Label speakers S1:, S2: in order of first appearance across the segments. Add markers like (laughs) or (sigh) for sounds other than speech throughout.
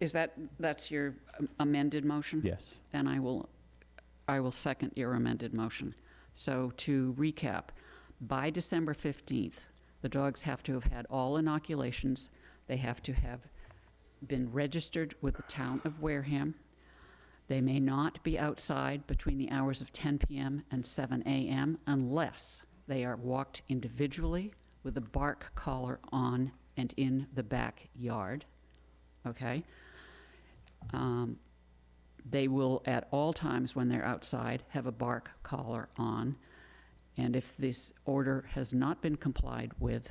S1: Is that, that's your amended motion?
S2: Yes.
S1: And I will, I will second your amended motion. So to recap, by December 15th, the dogs have to have had all inoculations. They have to have been registered with the town of Wareham. They may not be outside between the hours of 10 PM and 7 AM unless they are walked individually with a bark collar on and in the backyard, okay? Um, they will, at all times when they're outside, have a bark collar on. And if this order has not been complied with,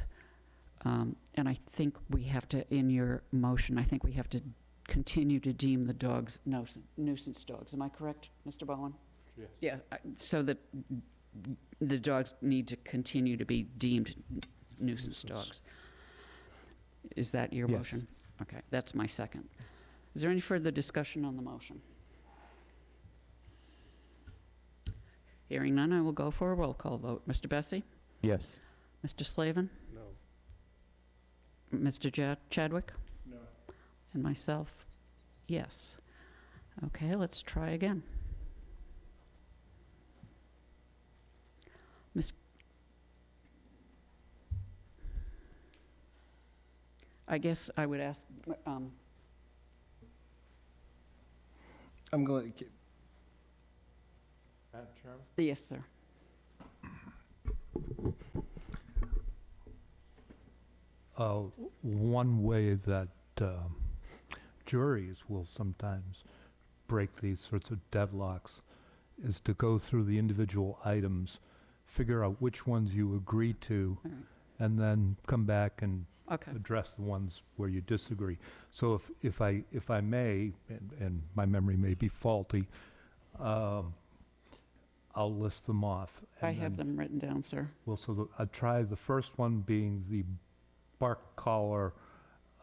S1: um, and I think we have to, in your motion, I think we have to continue to deem the dogs nuisance- nuisance dogs. Am I correct, Mr. Bowen?
S2: Yes.
S1: Yeah, I- so that the dogs need to continue to be deemed nuisance dogs. Is that your
S2: Yes.
S1: motion? Okay, that's my second. Is there any further discussion on the motion? Hearing none, I will go for a roll call vote. Mr. Bessie?
S2: Yes.
S1: Mr. Slavin?
S3: No.
S1: Mr. Ja- Chadwick?
S3: No.
S1: And myself, yes. Okay, let's try again. Miss... I guess I would ask, um,
S3: I'm going,
S4: (laughs)
S3: to
S2: Madam Chairman?
S1: yes, sir.
S5: uh, one way that um, juries will sometimes break these sorts of deadlocks is to go through the individual items, figure out which ones you agree to,
S1: All right.
S5: and then come back and
S1: Okay,
S5: address the ones where you disagree. So if, if I, if I may, and, and my memory may be faulty, um, I'll list them off.
S1: I
S5: and
S1: have
S5: then-
S1: them written down, sir.
S5: well, so the, I tried the first one being the bark collar,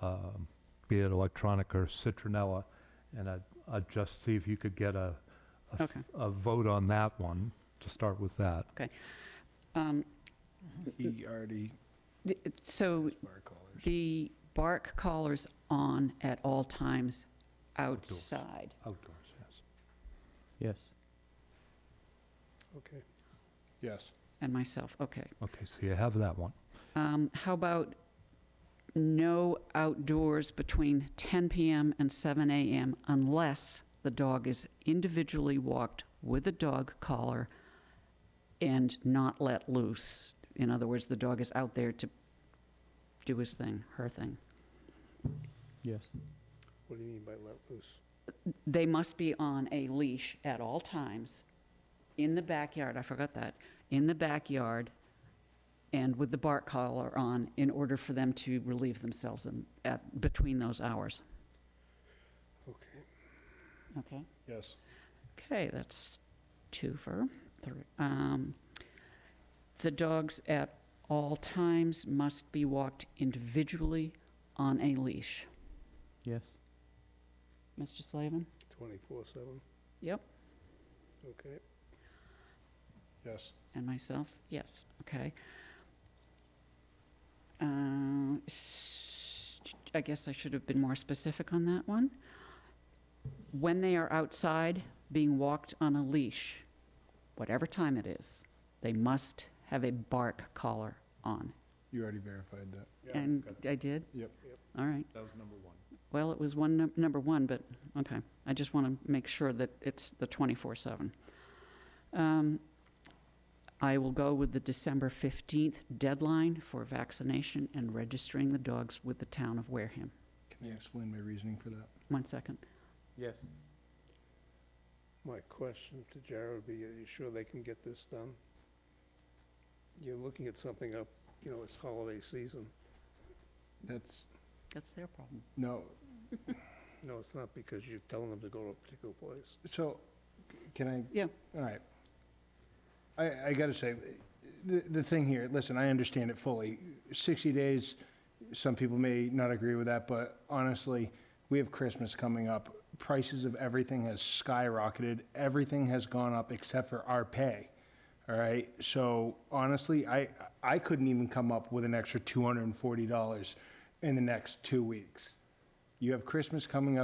S5: um, be it electronic or citronella, and I'd, I'd just see if you could get a, a f-
S1: Okay.
S5: a vote on that one to start with that.
S1: Um,
S3: he already.
S1: d- So
S3: bar callers.
S1: the bark collar's on at all times outside.
S5: Outdoors, yes.
S2: Yes.
S3: Yes.
S1: And myself, okay.
S5: Okay, so you have that one.
S1: Um, How about no outdoors between 10 PM and 7 AM unless the dog is individually walked with a dog collar and not let loose? In other words, the dog is out there to do his thing, her thing.
S2: Yes.
S3: What do you mean by let loose?
S1: They must be on a leash at all times, in the backyard, I forgot that, in the backyard, and with the bark collar on, in order for them to relieve themselves in, at, between those hours.
S3: Okay.
S1: Okay.
S3: Yes.
S1: Okay, that's two for, three. Um, The dogs at all times must be walked individually on a leash.
S2: Yes.
S1: Mr. Slavin?
S3: Twenty-four seven?
S1: Yep.
S3: Okay. Yes.
S1: And myself, yes, okay. Uh, s- I guess I should have been more specific on that one. When they are outside, being walked on a leash, whatever time it is, they must have a bark collar on.
S3: You already verified that.
S1: And I did?
S3: Yep.
S1: All right.
S5: That was number one.
S1: Well, it was one, num- number one, but, okay. I just want to make sure that it's the 24/7. Um, I will go with the December 15th deadline for vaccination and registering the dogs with the town of Wareham.
S3: Can you explain my reasoning for that?
S1: One second.
S2: Yes.
S4: My question to Jared would be, are you sure they can get this done? You're looking at something up, you know, it's holiday season.
S3: That's,
S1: That's their problem.
S3: no,
S4: No, it's not because you're telling them to go to a particular place.
S3: so, c- can I?
S1: Yeah.
S3: All right. I, I gotta say, the, the thing here, listen, I understand it fully. Sixty days, some people may not agree with that, but honestly, we have Christmas coming up. Prices of everything has skyrocketed. Everything has gone up except for our pay. All right, so honestly, I, I couldn't even come up with an extra two hundred and forty dollars in the next two weeks. You have Christmas coming up.